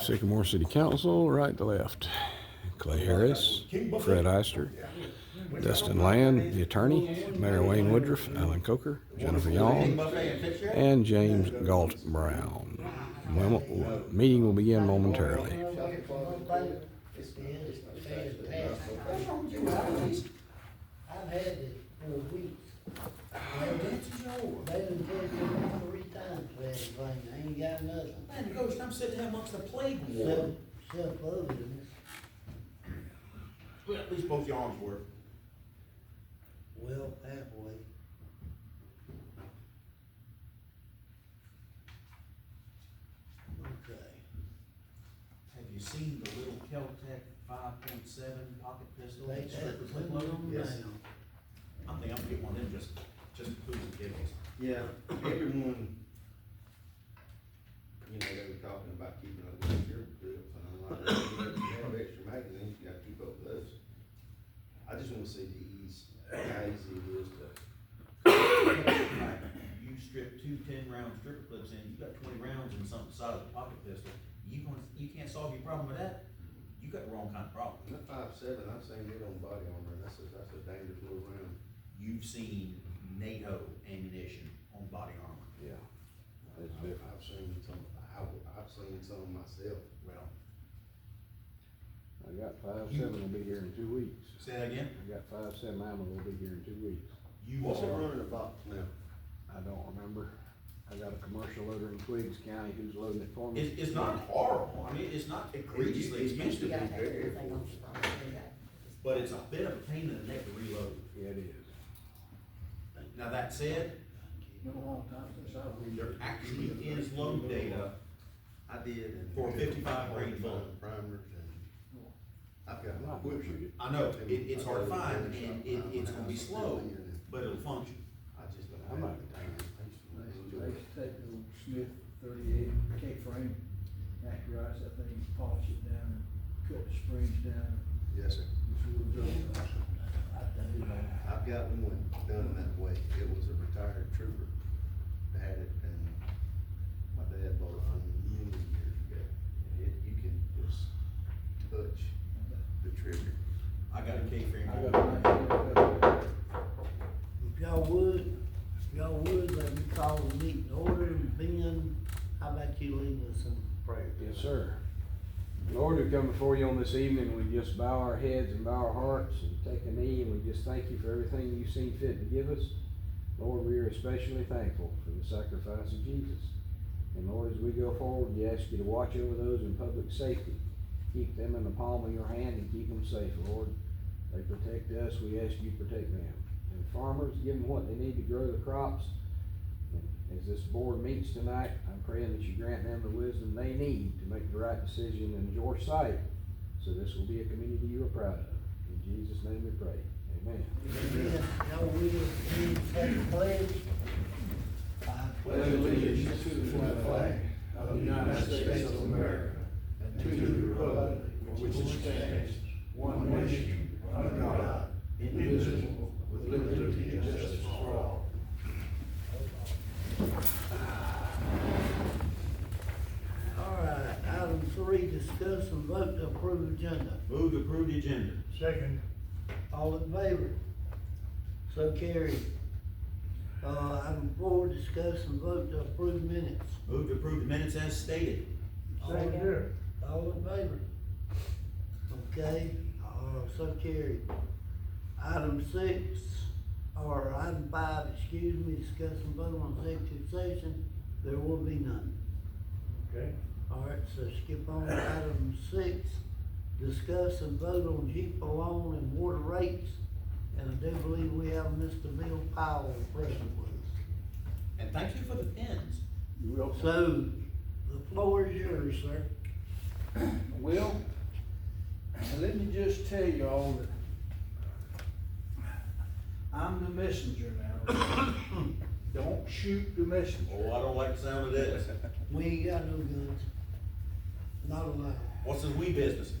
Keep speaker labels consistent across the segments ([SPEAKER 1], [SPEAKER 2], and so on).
[SPEAKER 1] Sycamore City Council, right to left. Clay Harris, Fred Eister, Dustin Land, the attorney, Mayor Wayne Woodruff, Alan Coker, Jennifer Yawn, and James Galt Brown. Memo- Meeting will begin momentarily.
[SPEAKER 2] I've had it for weeks. They done tested me three times for everything, I ain't got nothing.
[SPEAKER 3] Man, you go, I'm sitting here amongst the plague ward.
[SPEAKER 2] Self, self-loathing,
[SPEAKER 4] Well, At least both your arms were.
[SPEAKER 2] well, halfway. Okay.
[SPEAKER 3] Have you seen the little Kel-Tec five point seven pocket pistol?
[SPEAKER 2] They
[SPEAKER 3] It's stripped
[SPEAKER 2] had
[SPEAKER 3] with clip load on it?
[SPEAKER 4] Yes.
[SPEAKER 3] I think I'm gonna get one of them just, just for the giggles.
[SPEAKER 4] Yeah, everyone, you know, they were talking about keeping up with your grips and I'm like, "Well, if you have extra magazines, you gotta keep up with those. I just wanna see the ease, how easy it is to,
[SPEAKER 3] Like, You strip two ten round stripper clips in, you got twenty rounds in something size of a pocket pistol, you can you can't solve your problem with that, you got the wrong kind of problem.
[SPEAKER 4] in the five seven, I've seen it on body armor, and that's a, that's a dangerous little round.
[SPEAKER 3] You've seen NATO ammunition on body armor.
[SPEAKER 4] Yeah. I've seen some, I, I've seen some myself.
[SPEAKER 3] Well,
[SPEAKER 1] I got five, seven will be here in two weeks.
[SPEAKER 3] say that again,
[SPEAKER 1] I got five, seven, I'm will be here in two weeks.
[SPEAKER 3] you
[SPEAKER 4] What's it
[SPEAKER 3] are,
[SPEAKER 4] running a box now?
[SPEAKER 1] I don't remember. I got a commercial loader in Twiggs County who's loading it for me.
[SPEAKER 3] it's, it's not horrible, I mean, it's not egregiously
[SPEAKER 4] It used to
[SPEAKER 3] expensive,
[SPEAKER 4] be.
[SPEAKER 5] You gotta take everything off the phone, you gotta-
[SPEAKER 3] but it's a bit of a pain in the neck to reload.
[SPEAKER 1] It is.
[SPEAKER 3] Now, that said, there actually is load data,
[SPEAKER 4] I did. and-
[SPEAKER 3] For 55 grain bullet.
[SPEAKER 4] Primers and, I've got my whip shoot.
[SPEAKER 3] I know, it, it's hard to find, and it, it's gonna be slow, but it'll function.
[SPEAKER 4] I just don't
[SPEAKER 1] I'm
[SPEAKER 4] have
[SPEAKER 1] not-
[SPEAKER 4] the time.
[SPEAKER 6] Nice, take old Smith thirty-eight K-frame, accurize that thing, polish it down, cut the springs down.
[SPEAKER 4] Yes, sir.
[SPEAKER 6] It's real good. I think it all.
[SPEAKER 4] I've got one done that way. It was a retired trooper. Had it and my dad bought it from him many years ago. And it, you can just touch the trigger.
[SPEAKER 3] I got a K-frame.
[SPEAKER 6] I got it.
[SPEAKER 2] If y'all would, if y'all would, let me call the meeting to order and Ben, how about you lead us in prayer?
[SPEAKER 1] Yes, sir. Lord, we come before you on this evening, we just bow our heads and bow our hearts and take a knee, and we just thank you for everything you've seen fit to give us. Lord, we are especially thankful for the sacrifice of Jesus. And Lord, as we go forward, we ask you to watch over those in public safety. Keep them in the palm of your hand and keep them safe, Lord. They protect us, we ask you to protect them. And farmers, give them what they need to grow the crops. And As this board meets tonight, I'm praying that you grant them the wisdom they need to make the right decision in your sight. So this will be a community you are proud of. In Jesus' name we pray. Amen.
[SPEAKER 2] Ben, y'all will, Ben, take the pledge. I
[SPEAKER 7] pledge allegiance to the flag of the United States of America and to the republic for which it stands, one nation, under God, indivisible, with liberty and justice for all.
[SPEAKER 2] All right, item three, discuss and vote to approve agenda.
[SPEAKER 3] Move to approve the agenda.
[SPEAKER 6] Second.
[SPEAKER 2] All in favor? So carried. Uh, item four, discuss and vote to approve minutes.
[SPEAKER 3] Move to approve the minutes as stated.
[SPEAKER 2] All- All in favor? Okay, uh, so carried. Item six, or item five, excuse me, discuss and vote on executive session, there will be none.
[SPEAKER 6] Okay.
[SPEAKER 2] All right, so skip on to item six, discuss and vote on Jeep loan and water rates. And I do believe we have Mr. Bill Powell present with us.
[SPEAKER 3] And thank you for the pins.
[SPEAKER 6] You will.
[SPEAKER 2] So, the floor is yours, sir.
[SPEAKER 7] Well, let me just tell you all that I'm the messenger now. Don't shoot the messenger.
[SPEAKER 3] Oh, I don't like the sound of this.
[SPEAKER 2] We ain't got no guns. Not allowed.
[SPEAKER 3] What's this we business?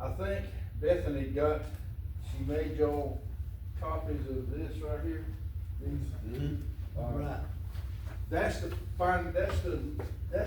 [SPEAKER 7] I think Bethany got, she made y'all copies of this right here. These,
[SPEAKER 3] Mhm.
[SPEAKER 7] uh,
[SPEAKER 2] Right.
[SPEAKER 7] That's the, fin- that's the, that's